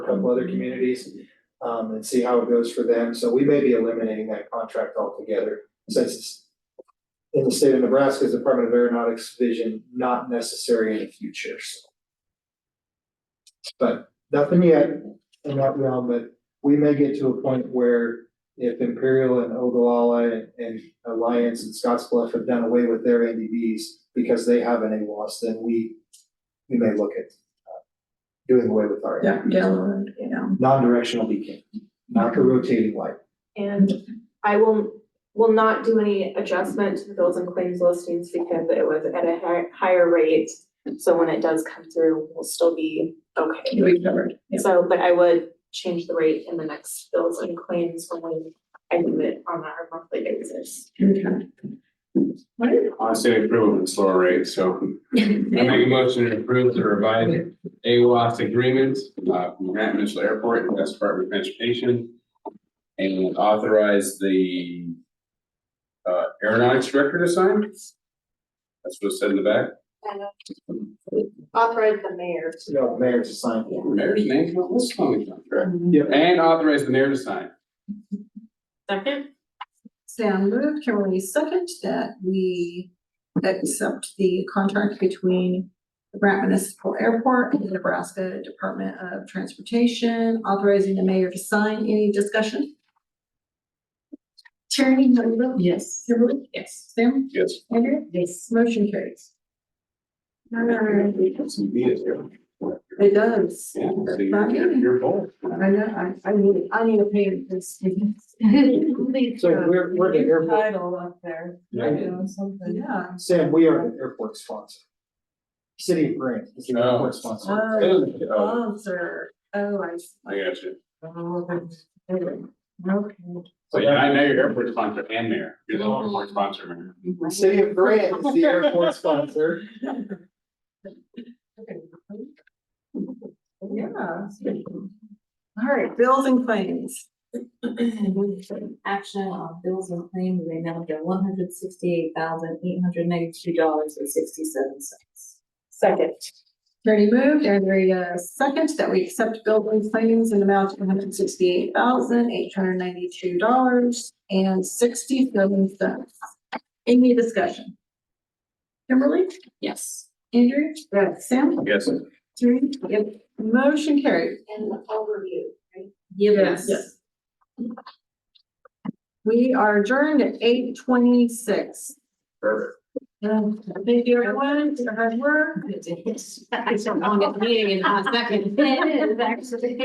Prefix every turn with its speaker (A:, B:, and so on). A: couple other communities, um, and see how it goes for them, so we may be eliminating that contract altogether, since it's in the state of Nebraska's Department of Aeronautics Division, not necessary in the future, so. But nothing yet in that realm, but we may get to a point where if Imperial and Ogallala and- and Alliance and Scottsbluff have done away with their NDVs because they have an AWAS, then we, we may look at uh, doing away with our
B: Yeah, Delaware, you know.
A: non-directional beacon, not a rotating light.
C: And I will, will not do any adjustment to the bills and claims listings because it was at a hi- higher rate. So when it does come through, we'll still be okay.
B: You'll be covered. Yeah.
C: So, but I would change the rate in the next bills and claims when I do it on our monthly basis.
B: Okay. Wonderful.
D: I say approve of the slower rate, so I
B: Yeah.
D: make a motion to approve the revised AWAS agreement, uh, from Grant Mitchell Airport and West Department of Transportation. And authorize the, uh, aeronautics director to sign. That's what's said in the back.
C: Authorize the mayor.
A: You know, mayor to sign.
D: Mayor's name's not listed on the contract.
A: Yep.
D: And authorize the mayor to sign.
C: Second?
B: Sam moved, Kimberly second, that we accept the contract between the Grant Municipal Airport and the Nebraska Department of Transportation, authorizing the mayor to sign. Any discussion? Attorney Noel? Yes. Kimberly? Yes. Sam?
D: Yes.
B: Andrea? Yes. Motion carries. Alright.
D: Some beat is here.
B: It does.
D: Yeah, so you're, you're- you're both.
B: I know, I, I need, I need a pay this.
A: So we're, we're the airport,
E: Title up there,
D: Yeah.
E: you know, something.
B: Yeah.
A: Sam, we are the airport sponsor. City of Grant is the airport sponsor.
B: Oh,
D: Oh,
B: sponsor. Oh, I see.
D: I got you.
B: Okay.
D: So yeah, I know your airport sponsor and mayor. You're the airport sponsor, mayor.
A: The City of Grant is the airport sponsor.
B: Yeah. All right, bills and claims.
E: Action on bills and claims, they now get one hundred sixty-eight thousand, eight hundred ninety-two dollars and sixty-seven cents.
C: Second.
B: Attorney moved, Andrea uh, second, that we accept bills and claims in the amount of one hundred sixty-eight thousand, eight hundred ninety-two dollars and sixty-seven cents. Any discussion? Kimberly?
E: Yes.
B: Andrew? Yes. Sam?
D: Yes.
B: Three. Yep. Motion carried.
E: And the overview, right? Yes.
B: Yes. We are adjourned at eight twenty-six.
D: Perfect.
B: Thank you, everyone, for your hard work.
E: I just don't want to get the meeting in a second.